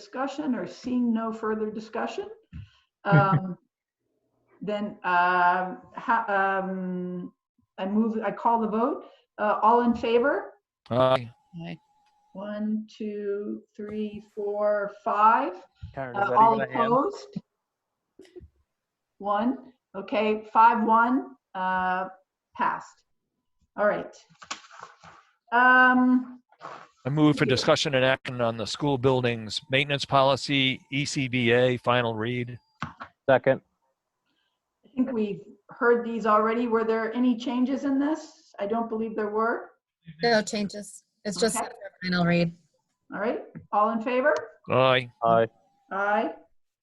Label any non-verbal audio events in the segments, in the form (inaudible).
discussion or seeing no further discussion, um, then um, ha- um, I move, I call the vote. Uh, All in favor? Aye. One, two, three, four, five. Karen, Uh, is that All even a hand? opposed? One, okay, five, one, uh, passed. All right. Um, I move for discussion and action on the school buildings maintenance policy, E ECBA, final read. Second. I think we've heard these already. Were there any changes in this? I don't believe there were. No changes. It's just Okay. final read. All right, all in favor? Aye. Aye. Aye,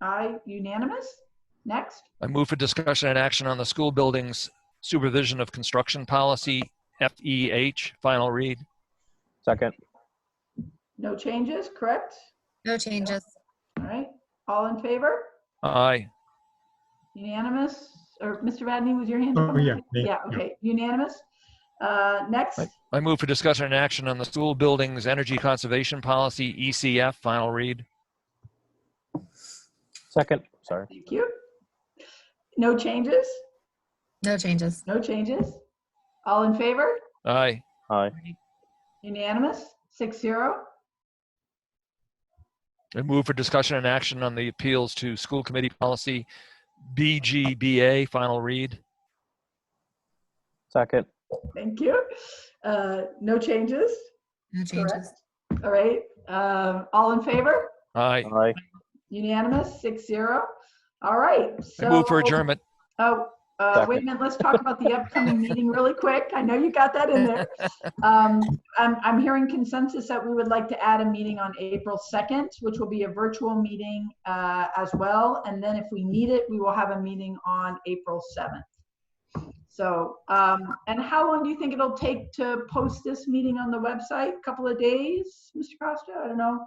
aye, unanimous? Next, I move for discussion and action on the school buildings supervision of construction policy, FEH, final read. Second. no changes, correct? No changes. All right, all in favor? Aye. Unanimous? Or Mr. Vadney, was your hand up? Oh, yeah, me, Yeah, yeah. okay, unanimous. Uh, Next, Right. I move for discussion and action on the school buildings energy conservation policy, ECF, final read. Second. Sorry. thank you. No changes? No changes. No changes? All in favor? Aye. Aye. Unanimous? Six zero? I move for discussion and action on the appeals to school committee policy, BGBA, final read. Second. Thank you. Uh, No changes? No Correct. changes. All right, um, all in favor? Aye. Aye. Unanimous, six zero. All right, I so. move for adjournment. Oh, uh, wait a Second. minute, let's talk about the upcoming meeting really quick. I know you got that in there. Um, I'm, I'm hearing consensus that we would like to add a meeting on April 2nd, which will be a virtual meeting uh, as well. And then if we need it, we will have a meeting on April 7th. So, um, and how long do you think it'll take to post this meeting on the website? Couple of days, Mr. Costa? I don't know.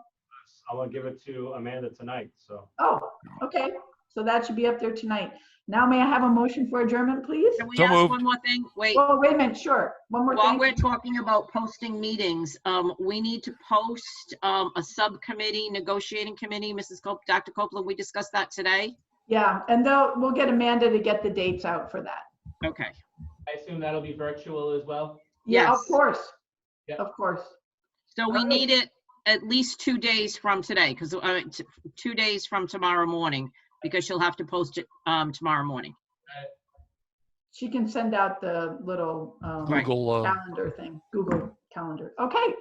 I will give it to Amanda tonight, so. Oh, okay. So that should be up there tonight. Now may I have a motion for adjournment, please? Can we So ask moved. one more thing? Wait, Well, wait a minute, sure. One more while we're thing. talking about posting meetings, um, we need to post, um, a subcommittee, negotiating committee. Mrs. Cop, Dr. Copeland, we discussed that today. Yeah, and though, we'll get Amanda to get the dates out for that. Okay. I assume that'll be virtual as well? Yeah, of Yes. course. Yeah. Of course. So we Okay. need it at least two days from today, because, uh, t- two days from tomorrow morning, because she'll have to post it, um, tomorrow morning. She can send out the little um, Right. Google, uh, calendar thing, Google Calendar. Okay.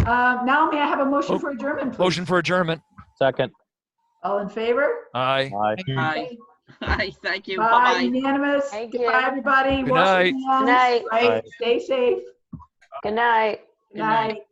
Uh, Now may I have a motion Oh, for adjournment, please? motion for adjournment. Second. All in favor? Aye. Aye. (laughs) Aye. Aye, thank you. Bye, Bye-bye. unanimous. Thank Goodbye, you. everybody. Good Wash your night. hands, night. right? Bye. Stay safe. Good night. Good night. night.